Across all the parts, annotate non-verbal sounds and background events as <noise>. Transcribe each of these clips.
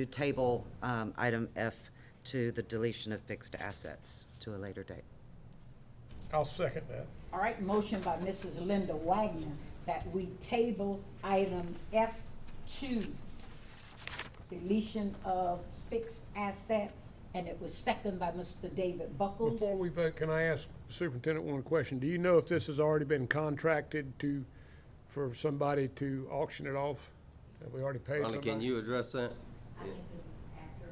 to table um, item F to the deletion of fixed assets to a later date. I'll second that. All right, motion by Mrs. Linda Wagner that we table item F two, deletion of fixed assets, and it was seconded by Mr. David Buckles. Before we vote, can I ask Superintendent one question? Do you know if this has already been contracted to, for somebody to auction it off? Have we already paid Rhonda, can somebody? you address that? I think this is after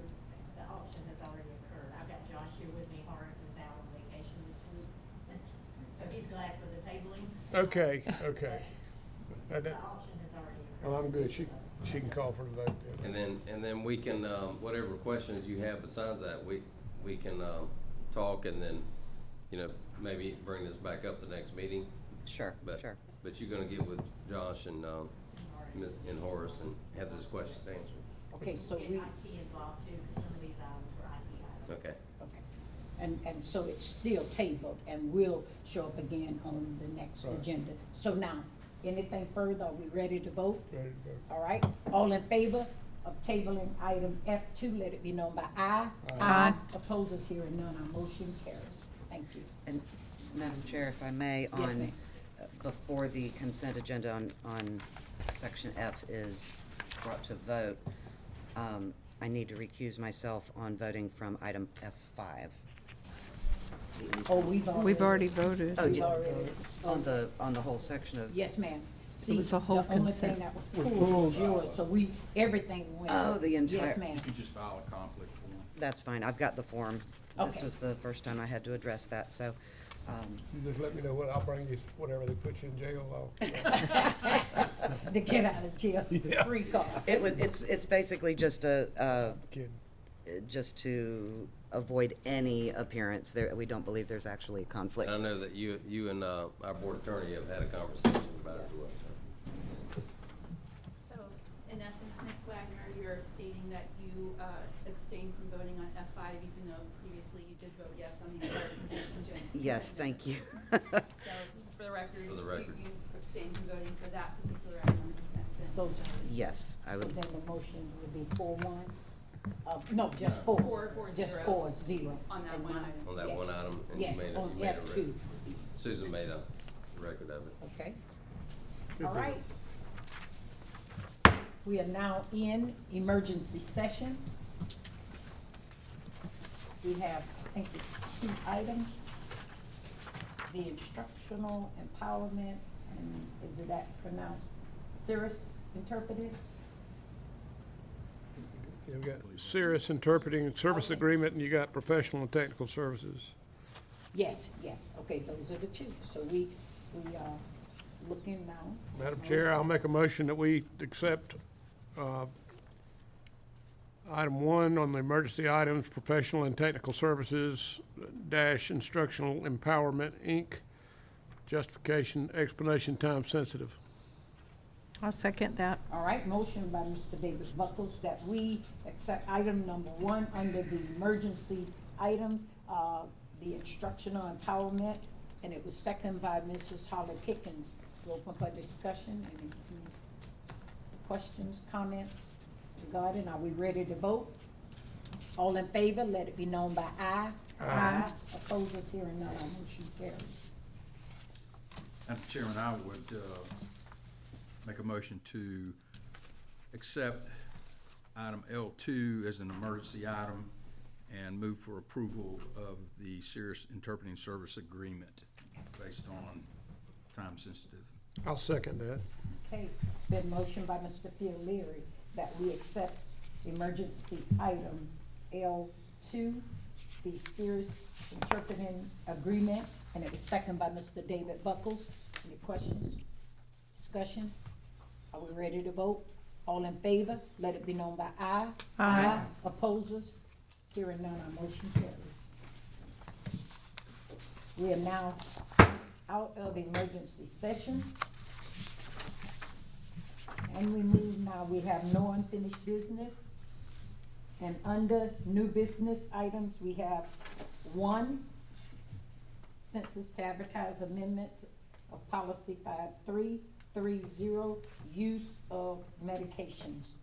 the auction has already occurred. I've got Josh here with me, Horace is out on vacation this week. <laughs> So he's glad for the tabling. Okay, okay. Uh, The that- auction has already Well, occurred. Oh, I'm good. She, she can call for the vote. And then, and then we can, um, whatever questions you have besides that, we, we can, um, talk and then, you know, maybe bring this back up the next meeting. Sure, But, sure. but you're gonna get with Josh and, um, and Horace and have those questions answered. Okay, so Get we, IT involved too, because some of these items were IT items. Okay. okay. And, and so it's still tabled and will show up again on the next Right. agenda. So now, anything further? Are we ready to vote? Ready to vote. All right, all in favor of tabling item F two, let it be known by aye. Aye. Opposers here and none, our motion carries. Thank you. And Madam Chair, if I may, on, ma'am. uh, before the consent agenda on, on section F is brought to vote, um, I need to recuse myself on voting from item F5. Oh, we've already. We've already voted. Oh, We've did- already- On the, on the whole section of, Yes, ma'am. See, was a whole consent. The only thing that was pulled was yours, so we, everything went. Oh, the entire- Yes, ma'am. You just file a conflict form. that's fine, I've got the form. This Okay. was the first time I had to address that, so, um, You Just let me know what, I'll bring you whatever they put you in jail on. The get out of jail free card. it was, it's, it's basically just a, uh, Kidding. just to avoid any appearance there, we don't believe there's actually a conflict. And I know that you, you and, uh, our board attorney have had a conversation about it. as well, so. So, in essence, Ms. Wagner, you're stating that you uh, abstained from voting on F5, even though previously you did vote yes on the entire contingent. Yes, thank you. <laughs> So, for the record, For the you record. you abstained from voting for that particular item on the consent. So, Yes, I so would, then the motion would be four one, uh, no, just four. Four, four, Just zero. four, zero. On that and one none. item. On that Yes. one item, and you Yes, made a- on you made a F rec- two, Susan made a record of it. okay. All right. We are now in emergency session. We have, I think it's two items. The instructional empowerment, and is it that pronounced Cirrus interpreted? You've got Cirrus Interpreting Service Agreement, and you got Professional and Technical Services. Yes, yes, okay, those are the two. So we, we are looking now. Madam Chair, I'll make a motion that we accept uh, item one on the emergency items, professional and technical services dash instructional empowerment, Inc. Justification, explanation, time sensitive. I'll second that. All right, motion by Mr. David Buckles that we accept item number one under the emergency item, uh, the instructional empowerment, and it was seconded by Mrs. Holly Pickens. We'll Open for discussion, any questions, comments regarding, are we ready to vote? All in favor, let it be known by aye. Aye. Opposers, hearing none, our motion carries. Madam Chairman, I would uh, make a motion to accept item L2 as an emergency item and move for approval of the Cirrus Interpreting Service Agreement based on time-sensitive. I'll second that. Okay, it's been motion by Mr. Leary that we accept emergency item L two, the serious interpreting agreement, and it was seconded by Mr. David Buckles. Any questions, discussion? Are we ready to vote? All in favor, let it be known by aye. Aye. Opposers? Hearing none, our motion carries. We are now out of emergency session. And we move now, we have no unfinished business. And under new business items, we have one, census to advertise amendment of policy five three three zero, use of medications.